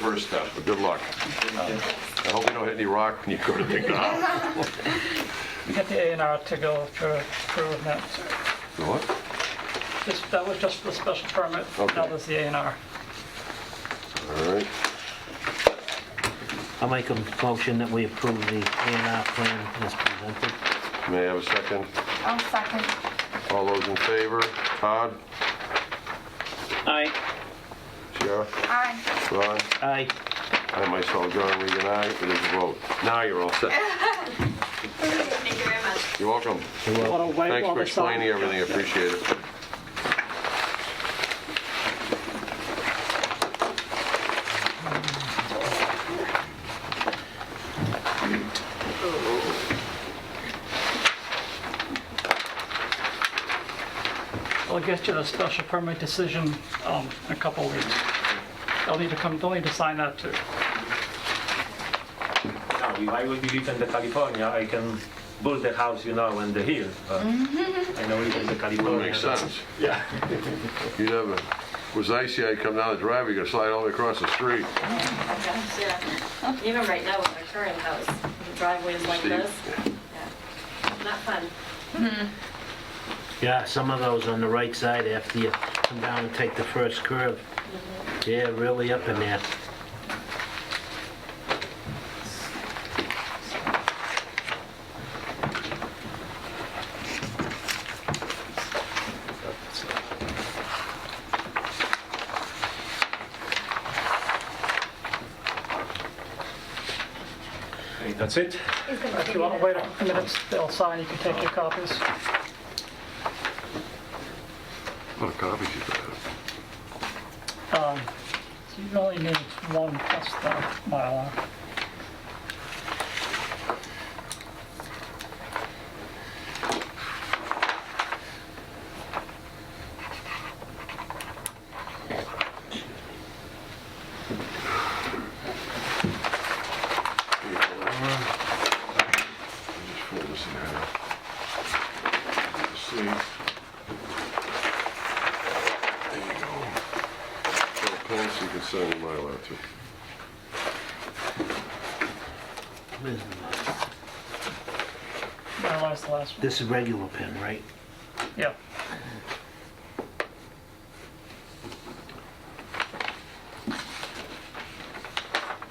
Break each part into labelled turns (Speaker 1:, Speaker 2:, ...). Speaker 1: First step, but good luck. I hope you don't hit any rock when you go to dig it out.
Speaker 2: get the A and R to go for improvement.
Speaker 1: The What?
Speaker 2: This, that was just for the special permit, now
Speaker 1: Okay.
Speaker 2: there's the A and R.
Speaker 1: All right,
Speaker 3: I'll make a motion that we approve the A and R plan as presented.
Speaker 1: may I have a second?
Speaker 4: I'll second.
Speaker 1: All those in favor? Todd?
Speaker 3: Aye.
Speaker 1: Sarah?
Speaker 4: Aye.
Speaker 1: Ron?
Speaker 3: Aye.
Speaker 1: I myself, John Regan, aye. It is a vote. Now you're all set.
Speaker 4: Thank you very much.
Speaker 1: You're welcome. Thanks for explaining everything, I appreciate it.
Speaker 2: We'll get you the special permit decision um, in a couple of weeks. They'll need to come, they'll need to sign that too.
Speaker 5: Now, if I would live in the California, I can build the house, you know, on the hill. But I know live in the California.
Speaker 1: Makes sense. Yeah. You'd have, a- it was icy, I'd come down the driveway, you could slide all the way across the street.
Speaker 6: Gosh, yeah. Even right now with our current house, the driveway is like
Speaker 1: Steep.
Speaker 6: this. Yeah. Not fun.
Speaker 3: Yeah, some of those on the right side after you come down and take the first curve. Yeah, really up in there.
Speaker 5: Okay, That's it.
Speaker 2: If you want to wait a few minutes, they'll sign, you can take your copies.
Speaker 1: What copies you got?
Speaker 2: Um, so You only need one plus the Mylar.
Speaker 1: Just fold this in half. See? There you go. Little pen so you can sign the Mylar too.
Speaker 3: Where's the-
Speaker 2: Mylar's the last one.
Speaker 3: This is regular pen, right?
Speaker 2: Yeah.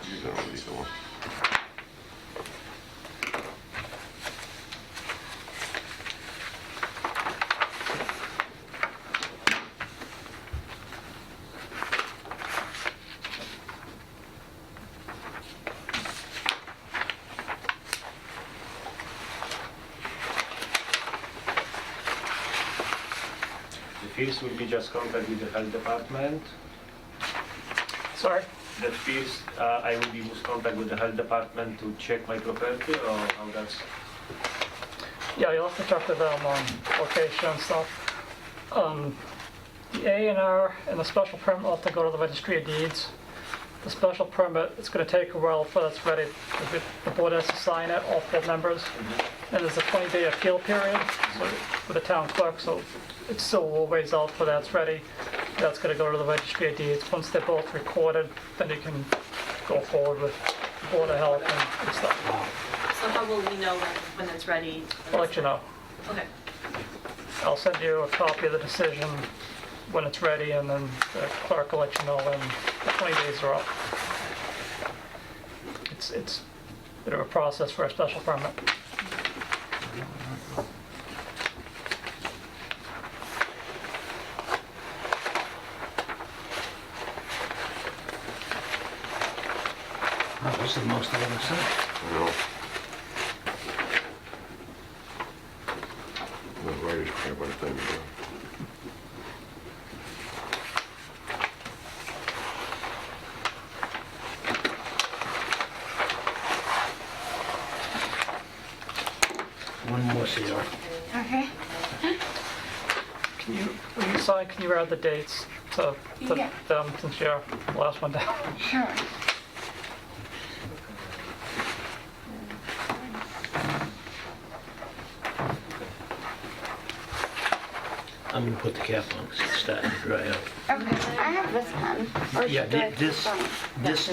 Speaker 1: You don't need the one.
Speaker 5: The fees will be just contact with the health department.
Speaker 2: Sorry?
Speaker 5: The fees, uh, I will be in contact with the health department to check my property or how that's.
Speaker 2: Yeah, you'll have to talk to them on um, location and stuff. Um, The A and R and the special permit will have to go to the registry of deeds. The special permit, it's gonna take a while before that's ready. If it- The board has to sign it, all four members. And there's a 20-day appeal period so- for the town clerk, so it's still a little ways out for that's ready. That's gonna go to the registry of deeds. Once they're both recorded, then you can go forward with Board of Health and stuff.
Speaker 6: So how will we know when, when it's ready?
Speaker 2: I'll let you know.
Speaker 6: Okay.
Speaker 2: I'll send you a copy of the decision when it's ready, and then the clerk will let you know when the 20 days are up. It's, it's a bit of a process for a special permit.
Speaker 3: Oh, this is the most I've ever seen.
Speaker 1: No. The writers cramp by the time you're done.
Speaker 3: One more, Sierra.
Speaker 4: Okay.
Speaker 2: Can you, when you sign, can you add the dates to to
Speaker 4: Yeah.
Speaker 2: them, since you're the last one down?
Speaker 4: Sure.
Speaker 3: I'm gonna put the cap on 'cause it's starting to dry out.
Speaker 4: Okay. I have this pen. Or
Speaker 3: Yeah,
Speaker 4: should I
Speaker 3: thi-
Speaker 4: keep
Speaker 3: this,
Speaker 4: one?
Speaker 3: this